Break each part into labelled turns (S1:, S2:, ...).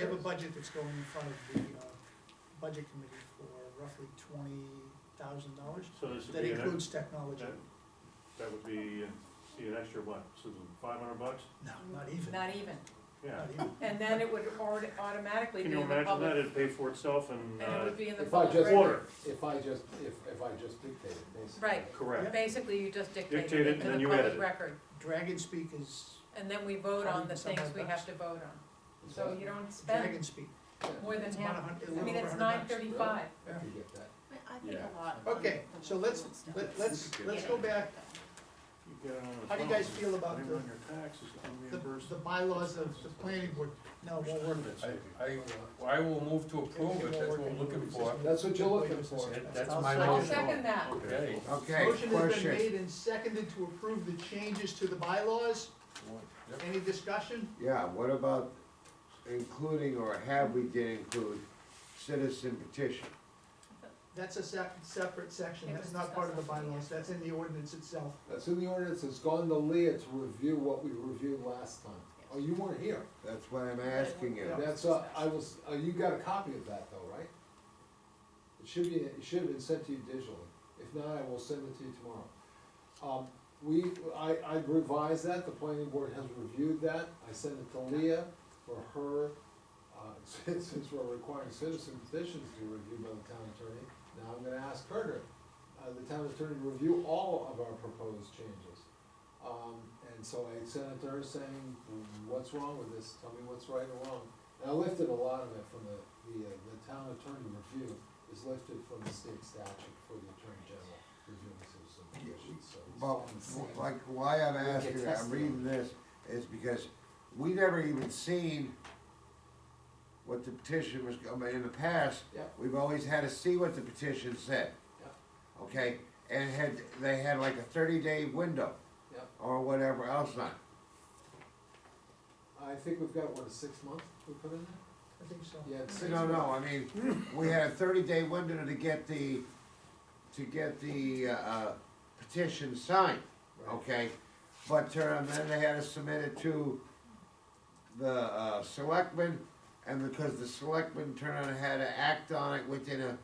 S1: We have a budget that's going in front of the uh, budget committee for roughly twenty thousand dollars.
S2: So this would
S1: That
S2: be, an ex-
S1: includes technology.
S2: that- that would be, uh, see, an extra what, Susan, five hundred bucks?
S1: No, not even,
S3: Not even.
S2: Yeah.
S1: not even.
S3: And then it would already automatically
S2: Can
S3: be
S2: you
S3: in the
S2: imagine that?
S3: public,
S2: It'd pay for itself and,
S3: and it
S2: uh,
S3: would be in the
S4: If I
S3: public
S4: just,
S3: record.
S2: Order.
S4: if I just, if, if I just dictate it, basically.
S3: Right,
S2: correct.
S3: basically you just dictate
S2: Dictate it
S3: it
S2: and
S3: into
S2: then
S3: the
S2: you edit
S3: public
S2: it.
S3: record,
S1: Dragon speak is,
S3: and then we vote on the
S1: Something
S3: things we
S1: like
S3: have
S1: that.
S3: to vote on. So you don't spend
S1: dragon speak.
S3: more than
S1: It's about a
S3: half,
S1: hundred, a
S3: I
S1: little
S3: mean,
S1: over
S3: it's
S1: a
S3: nine
S1: hundred bucks.
S3: thirty-five.
S4: I can get that.
S5: I think
S2: Yeah.
S5: a lot of.
S1: Okay, so let's- Let, let's, let's go back,
S2: You get it on the
S1: How do you guys
S2: phone.
S1: feel about
S2: Put it
S1: the-
S2: on your taxes,
S1: the,
S2: unreimbursed.
S1: the bylaws of the planning board. No, it won't work.
S6: I, I, I will move to approve it, that's what we're looking for.
S4: That's what you're looking for.
S6: That's
S1: I'll
S6: my
S1: second
S3: I'll
S1: it.
S6: motion.
S3: second that.
S2: Okay.
S6: Okay.
S7: Okay,
S1: Motion has been
S7: question.
S1: made and seconded to approve the changes to the bylaws.
S6: Yep.
S1: Any discussion?
S7: Yeah, what about including or have we did include citizen petition?
S1: That's a sep- separate section,
S3: It
S1: that's
S3: was
S1: not part of the
S3: discussed on the-
S1: bylaws, that's in the ordinance itself.
S4: That's in the ordinance, it's gone to Leah to review what we reviewed last time. Oh, you weren't here.
S7: That's what I'm asking you.
S4: That's, uh, I was, uh, you got a copy of that though, right? It should be, it should have been sent to you digitally. If not, I will send it to you tomorrow. Um, we, I, I revised that, the planning board has reviewed that. I sent it to Leah for her, uh, since, since we're requiring citizen petitions to be reviewed by the town attorney. Now I'm gonna ask her to, uh, the town attorney to review all of our proposed changes. Um, and so I sent it to her saying, what's wrong with this, tell me what's right or wrong. And I lifted a lot of it from the, the, uh, the town attorney review is lifted from the state statute for the attorney general reviewing citizen petitions, so. it's-
S7: Well, like, why I'm asking, I'm reading this, is because we never even seen what the petition was, I mean, in the past,
S4: Yeah.
S7: we've always had to see what the petition said. Okay, and had, they had like a thirty day window.
S4: Yep.
S7: Or whatever else not.
S4: I think we've got, what, a six month we put in there?
S1: I think so.
S4: Yeah, it's six
S7: No,
S4: months.
S7: no, I mean, we had a thirty day window to get the, to get the, uh, petition signed,
S4: Right.
S7: okay? But, uh, then they had to submit it to the, uh, selectmen, and because the selectmen turned around and had to act on it within a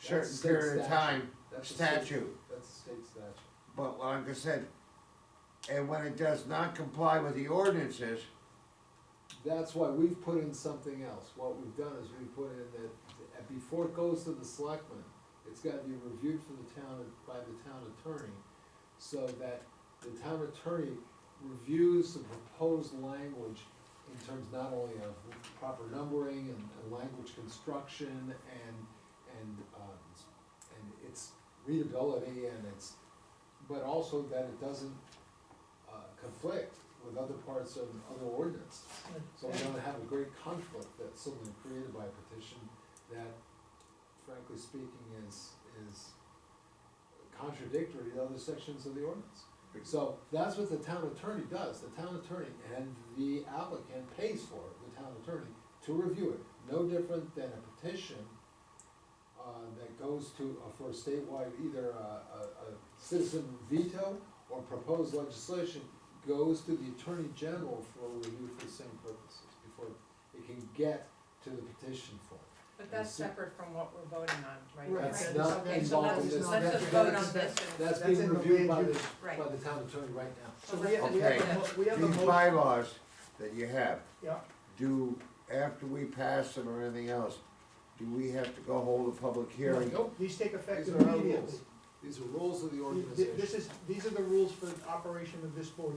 S7: certain
S4: That's state
S7: period of
S4: statute.
S7: time,
S4: That's a state-
S7: statute.
S4: That's a state statute.
S7: But like I said, and when it does not comply with the ordinances,
S4: That's why we've put in something else. What we've done is we put in that, that before it goes to the selectmen, it's gotta be reviewed for the town, by the town attorney, so that the town attorney reviews the proposed language in terms not only of proper numbering and, and language construction and, and, um, and its readability and its, but also that it doesn't, uh, conflict with other parts of other ordinances. So we don't have a great conflict that's suddenly created by a petition that frankly speaking is, is contradictory to other sections of the ordinance. So that's what the town attorney does, the town attorney and the applicant pays for it, the town attorney, to review it. No different than a petition, uh, that goes to, uh, for statewide, either a, a, a citizen veto or proposed legislation goes to the attorney general for review for the same purposes, before it can get to the petition form.
S3: But that's separate from what we're voting on right now.
S1: Right,
S4: That's
S1: that's
S4: not
S3: Okay, so
S4: involved
S3: let's,
S4: in this.
S3: let's just
S4: That's-
S3: vote on
S4: that's-
S3: this and,
S4: That's
S1: That's in
S4: being
S1: the
S4: reviewed by
S1: land
S4: the,
S1: use.
S3: right.
S4: by the town attorney right now.
S1: So we have, we have, a mo- we have a
S7: these
S1: motion,
S7: bylaws that you have,
S1: yeah,
S7: do, after we pass them or anything else, do we have to go hold a public hearing?
S4: Nope,
S1: these take effect
S4: these are our
S1: immediately.
S4: rules, these are rules of the
S1: Th- This
S4: organization.
S1: is, these are the rules for the operation of this board.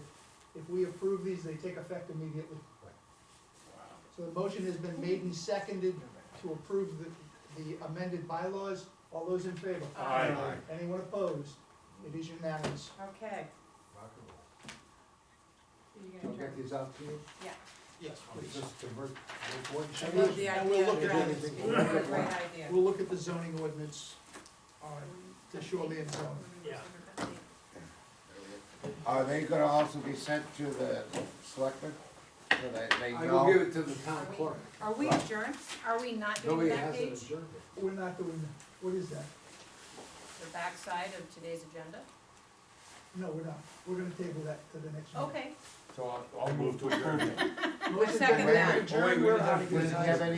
S1: If we approve these, they take effect immediately.
S4: Right.
S1: So the motion has been made and seconded to approve the, the amended bylaws. All those in favor?
S3: Aye.
S2: Aye.
S1: Anyone opposed? It is unanimous.
S3: okay.
S4: Rock and roll.
S3: You're
S4: Can
S3: gonna
S4: I get
S3: turn-
S4: these out to you?
S3: Yeah,
S1: Yes,
S4: I'll
S1: please.
S4: Just convert, make one
S3: I
S4: change.
S3: love the
S1: Now
S3: idea.
S1: we'll look
S3: of
S1: at
S3: that.
S4: everything.
S3: It's a Great idea.
S1: We'll look at the zoning ordinance on the shoreline zone.
S3: Yeah.
S7: Are they gonna also be sent to the selectmen, so that they
S4: I will give
S7: know?
S4: it to the town clerk.
S5: Are we adjourned? Are we not doing
S4: Nobody
S5: that
S4: has an
S5: page?
S4: adjournment.
S1: We're not doing that. What is that?
S5: The backside of today's agenda?
S4: Mm-hmm.
S1: No, we're not. We're gonna table that to the next meeting.
S3: Okay, so I'll, I'll
S8: Move to adjourn.
S3: approve it.
S6: Motion's been
S9: second
S6: made to
S9: that.
S6: adjourn.
S3: Oh, wait, we
S6: We're
S3: didn't have-
S6: out of
S4: Does
S6: here.
S4: it have any